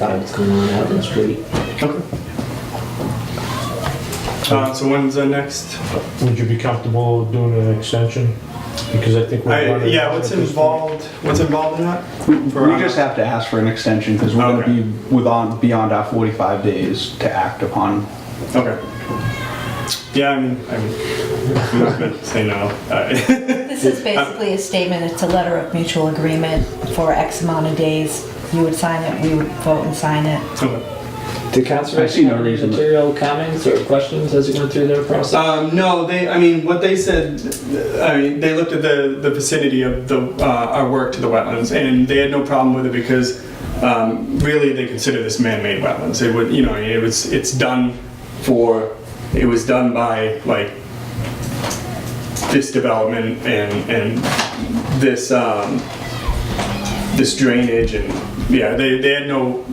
about what's going on out in the street. Uh, so when's the next? Would you be comfortable doing an extension? Because I think we're I, running. yeah, what's involved? What's involved in that? We we just have to ask for an extension because we're going Okay. to be within, beyond our 45 days to act upon. Okay. Yeah, I mean, I'm, I'm not gonna say no. Uh, This is basically a statement, it's a letter of mutual agreement for X amount of days. You would sign it, we would vote and sign it. Uh, Did I see conservation no have any reason- material comments or questions as it went through their process? um, no, they. I mean, what they said. I mean, they looked at the the vicinity of the uh, our work to the wetlands, and they had no problem with it because um, really they consider this man-made wetlands. It would, you know, it was it's done for. It was done by like this development and and this um, this drainage and yeah, they, they had no.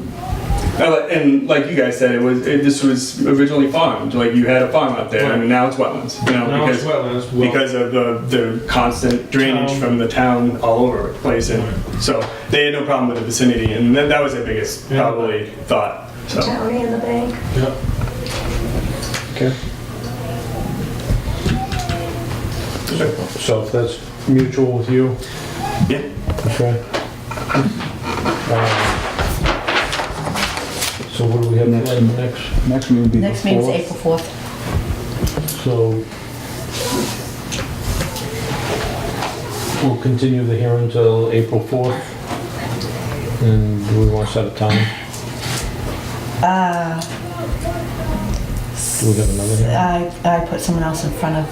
uh, And like you guys said, it was it, this was originally farmed. Like you had a farm out there, and now it's wetlands. You know, Now it's because wetlands, well- because of the, the constant drainage Town. from the town all over the place, and so they had no problem with the vicinity, and that, that was their biggest Yeah. probably thought. So County in the bank. Yeah. Okay. So if that's mutual with you, yeah, okay? Um, So what do we have Next. planned next? Next meeting will be the Next meeting's 4th. April 4th. So we'll continue the hearing until April 4th. And do we want to set a time? Uh, Do we have another hearing? I, I put someone else in front of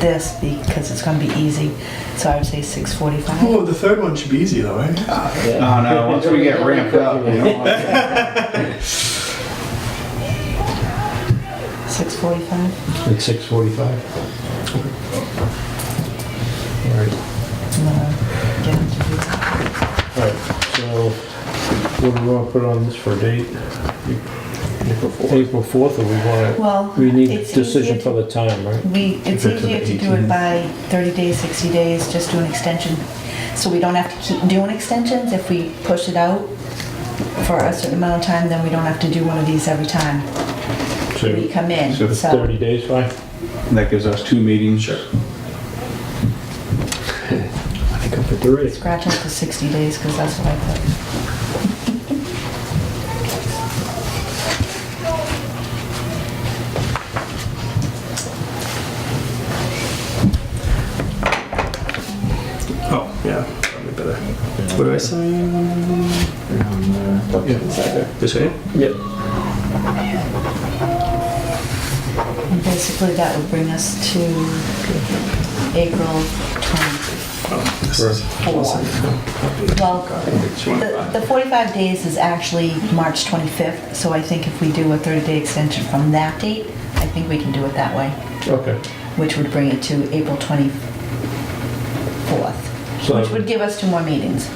this because it's gonna be easy, so I would say 6:45. oh, the third one should be easy though, right? Oh, no, once we get ramped up, you know. 6:45, At 6:45? All right. and then I'll get into it. Alright, so what do we want to put on this for a date? April 4th, or we want to, Well, we need a it's easier decision to- for the time, right? We, it's easier to do it by 30 days, 60 days, just do an extension. So we don't have to keep doing extensions. If we push it out for a certain amount of time, then we don't have to do one of these every time we So come in. So it's it's So 30 days, fine? That gives us two meetings. Sure. I think I'm for three. scratch out the 60 days because that's what I put. Oh yeah, probably better. What do I say? This way. Yep. And basically, that would bring us to April 24. Well, the the 45 days is actually March 25th, so I think if we do a 30-day extension from that date, I think we can do it that way. Okay. which would bring it to April 24th, So which would give us two more meetings,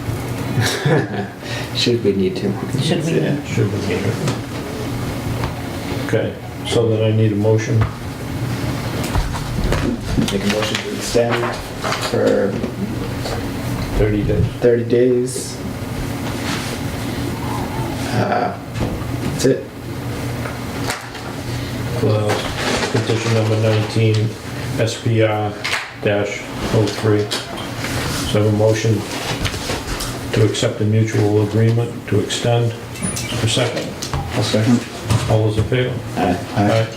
Should we need to? should we. Yeah. Should be good. Okay, so then I need a motion. Make a motion to extend for 30 days. 30 days. Uh, That's it. Well, Petition number 19, SPR-03. So I have a motion to accept a mutual agreement to extend. A second. I'll second. All those in favor? Aye.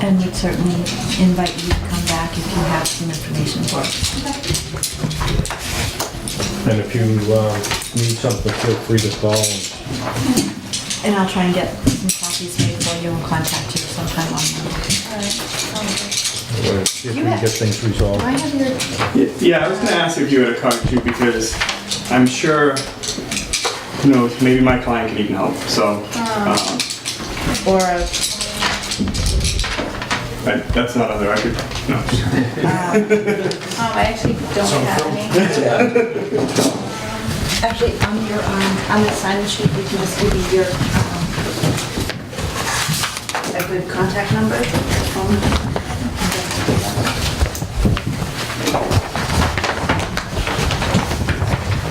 And would certainly invite you to come back if you have some information for us. And if you uh, need something, feel free to call. And I'll try and get some copies made for you and contact you sometime on Monday. or uh, If we get things resolved. I have your Yeah, I was gonna ask if you had a card too, because I'm sure, who knows, maybe my client could even help, so. um, Or a But that's not on the record, no. Um, I actually don't have any. Actually, on your, um, on the sign sheet, we can just give you your, um, a good contact number, phone.